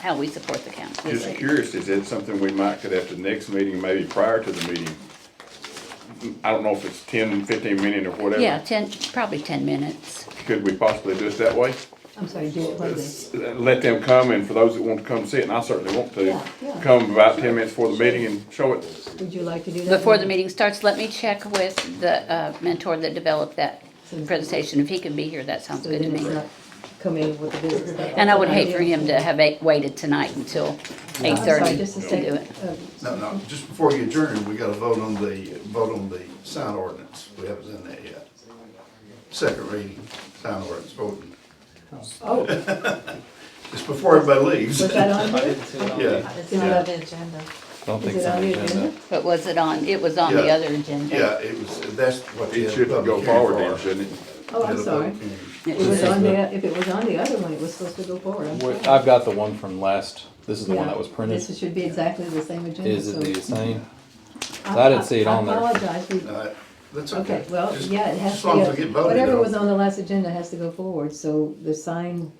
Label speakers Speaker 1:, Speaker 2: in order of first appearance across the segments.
Speaker 1: how we support the council.
Speaker 2: Just curious, is that something we might could at the next meeting, maybe prior to the meeting? I don't know if it's 10, 15 minute or whatever.
Speaker 1: Yeah, ten, probably ten minutes.
Speaker 2: Could we possibly do it that way?
Speaker 3: I'm sorry, do it
Speaker 2: S- Let them come and for those that want to come see it, and I certainly want to,
Speaker 3: Yeah, yeah.
Speaker 2: come about ten minutes before the meeting and show it.
Speaker 3: Would you like to do that?
Speaker 1: Before the meeting starts, let me check with the uh, mentor that developed that presentation. If he can be here, that sounds
Speaker 3: So
Speaker 1: good to
Speaker 3: then it's
Speaker 1: me.
Speaker 3: not come in with the business. stuff.
Speaker 1: And I would hate for him to have a- waited tonight until
Speaker 3: I'm
Speaker 1: eight
Speaker 3: sorry,
Speaker 1: thirty
Speaker 3: just a
Speaker 1: to do
Speaker 3: second.
Speaker 1: it.
Speaker 3: Uh,
Speaker 4: No, no, just before you adjourn, we gotta vote on the, vote on the sign ordinance. We haven't done that yet. Second reading, sign ordinance voting.
Speaker 3: Oh,
Speaker 4: It's before everybody leaves.
Speaker 3: was that on here?
Speaker 4: Yeah,
Speaker 5: It's not on the agenda.
Speaker 6: I don't
Speaker 3: Is
Speaker 6: think
Speaker 3: it
Speaker 6: so.
Speaker 3: on the agenda?
Speaker 1: But was it on, it was on the
Speaker 4: Yeah.
Speaker 1: other agenda?
Speaker 4: yeah, it was, that's what you
Speaker 2: It
Speaker 4: had
Speaker 2: should
Speaker 4: a public
Speaker 2: go
Speaker 4: hearing
Speaker 2: forward then,
Speaker 4: for.
Speaker 2: shouldn't it?
Speaker 3: Oh, I'm
Speaker 4: You had a
Speaker 3: sorry.
Speaker 4: public hearing.
Speaker 3: It was on the, if it was on the other one, it was supposed to go forward. I'm
Speaker 6: Wait,
Speaker 3: sorry.
Speaker 6: I've got the one from last, this is the one
Speaker 3: Yeah,
Speaker 6: that was printed.
Speaker 3: This should be exactly the same agenda.
Speaker 6: Is it
Speaker 3: so-
Speaker 6: the same?
Speaker 3: I-
Speaker 6: I didn't see it on there.
Speaker 3: I apologize. We-
Speaker 4: No, That's okay.
Speaker 3: Okay, well,
Speaker 4: Just-
Speaker 3: yeah, it has
Speaker 4: As long as
Speaker 3: to,
Speaker 4: we
Speaker 3: be-
Speaker 4: get voted
Speaker 3: whatever was
Speaker 4: on.
Speaker 3: on the last agenda has to go forward, so the sign,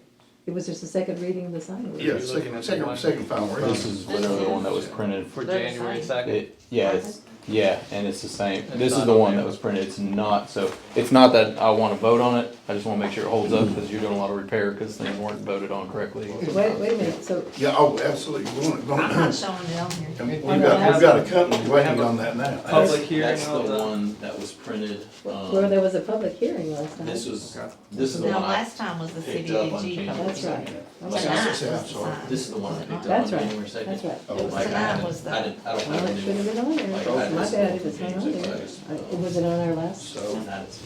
Speaker 3: it was just the second reading of the sign. ordinance.
Speaker 4: Yeah, second, second, second final reading.
Speaker 6: This is literally the one that was printed.
Speaker 7: For January second,
Speaker 6: It, yeah, it's, yeah, and it's the same. This is the one that was printed. It's not, so, it's not that I wanna vote on it. I just wanna make sure it holds up because you're doing a lot of repair because things weren't voted on correctly.
Speaker 3: Wait, wait a minute, so,
Speaker 4: Yeah, oh, absolutely. We want it
Speaker 5: I'm
Speaker 4: going.
Speaker 5: not showing it on here.
Speaker 4: And We've got, we've got a company waiting on that now.
Speaker 6: Oh.
Speaker 7: public hearing
Speaker 6: That's the
Speaker 7: on the,
Speaker 6: one that was printed. um,
Speaker 3: where there was a public hearing last night.
Speaker 6: This was, this is the
Speaker 5: Now,
Speaker 6: one I,
Speaker 5: last time was the
Speaker 6: picked
Speaker 5: city
Speaker 6: up on
Speaker 5: AG.
Speaker 6: camera.
Speaker 3: That's right.
Speaker 5: Tonight
Speaker 3: Okay.
Speaker 4: Yeah.
Speaker 5: was the
Speaker 4: Sorry.
Speaker 5: sign.
Speaker 6: this is the one I picked up on
Speaker 3: That's right,
Speaker 6: January second.
Speaker 3: that's right.
Speaker 4: Oh,
Speaker 6: Like, I
Speaker 5: Tonight
Speaker 6: haven't-
Speaker 5: was the-
Speaker 6: I didn't, I don't
Speaker 3: Well,
Speaker 6: have
Speaker 3: Oh, it
Speaker 6: any.
Speaker 3: should have been on there.
Speaker 6: Like,
Speaker 3: It's
Speaker 6: I
Speaker 3: My
Speaker 6: just-
Speaker 3: bad if it's not on there. I- Was it on our last?
Speaker 4: So,
Speaker 6: Oh, That is-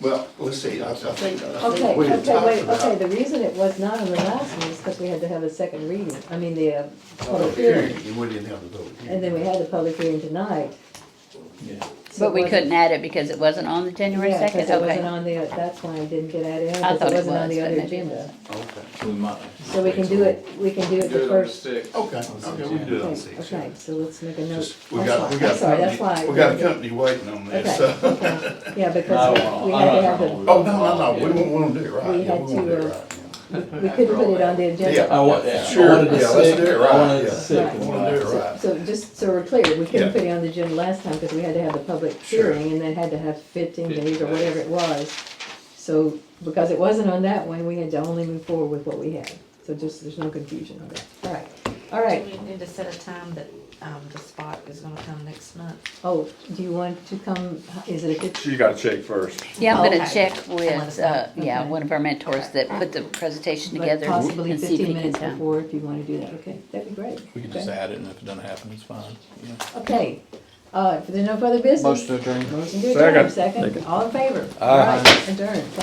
Speaker 4: well, let's see, I, I think. I think
Speaker 3: Okay,
Speaker 4: we had
Speaker 3: okay,
Speaker 4: talked
Speaker 3: wait,
Speaker 4: about-
Speaker 3: okay, the reason it was not on the last one is because we had to have a second reading, I mean, the uh, public
Speaker 4: Public
Speaker 3: hearing.
Speaker 4: hearing, and we didn't have the public hearing.
Speaker 3: And then we had the public hearing tonight.
Speaker 6: Yeah.
Speaker 3: so
Speaker 1: But we
Speaker 3: it wasn't-
Speaker 1: couldn't add it because it wasn't on the January
Speaker 3: Yeah,
Speaker 1: second,
Speaker 3: because it wasn't
Speaker 1: okay.
Speaker 3: on the, that's why I didn't get added
Speaker 1: I
Speaker 3: on,
Speaker 1: thought it
Speaker 3: because it wasn't on
Speaker 1: was,
Speaker 3: the
Speaker 1: but
Speaker 3: other
Speaker 1: maybe it
Speaker 3: agenda.
Speaker 4: Okay,
Speaker 6: We might.
Speaker 3: So we can do it, we can do it the first.
Speaker 4: okay, okay, we can do it on
Speaker 3: Okay,
Speaker 4: six.
Speaker 3: okay, so let's make a note.
Speaker 4: Just, we
Speaker 3: That's
Speaker 4: got,
Speaker 3: why-
Speaker 4: we got.
Speaker 3: I'm sorry, that's
Speaker 4: company-
Speaker 3: why.
Speaker 4: We got a company waiting on this,
Speaker 3: Okay,
Speaker 4: so.
Speaker 3: okay. Yeah,
Speaker 6: I
Speaker 3: because
Speaker 6: don't-
Speaker 3: we- we
Speaker 6: I
Speaker 3: had to
Speaker 6: don't
Speaker 3: have
Speaker 6: know.
Speaker 3: the,
Speaker 4: Oh, no, no, no, we don't want to do it right.
Speaker 3: We
Speaker 4: Yeah,
Speaker 3: had
Speaker 4: wanna do
Speaker 3: to,
Speaker 4: it
Speaker 3: uh,
Speaker 4: right.
Speaker 3: we couldn't put it on the
Speaker 4: Yeah.
Speaker 3: agenda.
Speaker 6: I want, yeah. I
Speaker 4: Sure,
Speaker 6: wanted it
Speaker 4: yeah, let's do
Speaker 6: sick.
Speaker 4: it
Speaker 6: I
Speaker 4: right,
Speaker 6: wanted it
Speaker 4: yeah.
Speaker 6: sick.
Speaker 3: Right.
Speaker 4: We wanna do it right.
Speaker 3: So just so we're clear, we
Speaker 4: Yeah.
Speaker 3: couldn't put it on the agenda last time because we had to have the public
Speaker 4: Sure.
Speaker 3: hearing and they had to have fifteen days or whatever it was. So because it wasn't on that one, we had to only move forward with what we had. So just, there's no confusion on that. All right, all right.
Speaker 5: We need to set a time that, um, the spot is gonna come next month.
Speaker 3: Oh, do you want to come, is it a good,
Speaker 2: She's gotta check first.
Speaker 1: Yeah, I'm gonna
Speaker 5: Okay.
Speaker 1: check
Speaker 5: Let
Speaker 1: with,
Speaker 5: us
Speaker 1: uh,
Speaker 5: know.
Speaker 1: yeah,
Speaker 3: Okay.
Speaker 1: one of our mentors that put the presentation
Speaker 3: like
Speaker 1: together
Speaker 3: possibly
Speaker 1: and see if
Speaker 3: fifteen
Speaker 1: he can
Speaker 3: minutes
Speaker 1: come.
Speaker 3: before if you wanna do that, okay? That'd be great.
Speaker 6: We can
Speaker 3: Okay.
Speaker 6: just add it and if it doesn't happen, it's fine. Yeah.
Speaker 3: Okay, uh, if there's no further business.
Speaker 6: Motion to adjourn.
Speaker 3: Motion to adjourn,
Speaker 2: Second.
Speaker 3: second, all in favor?
Speaker 6: Aye.
Speaker 3: All right, adjourn.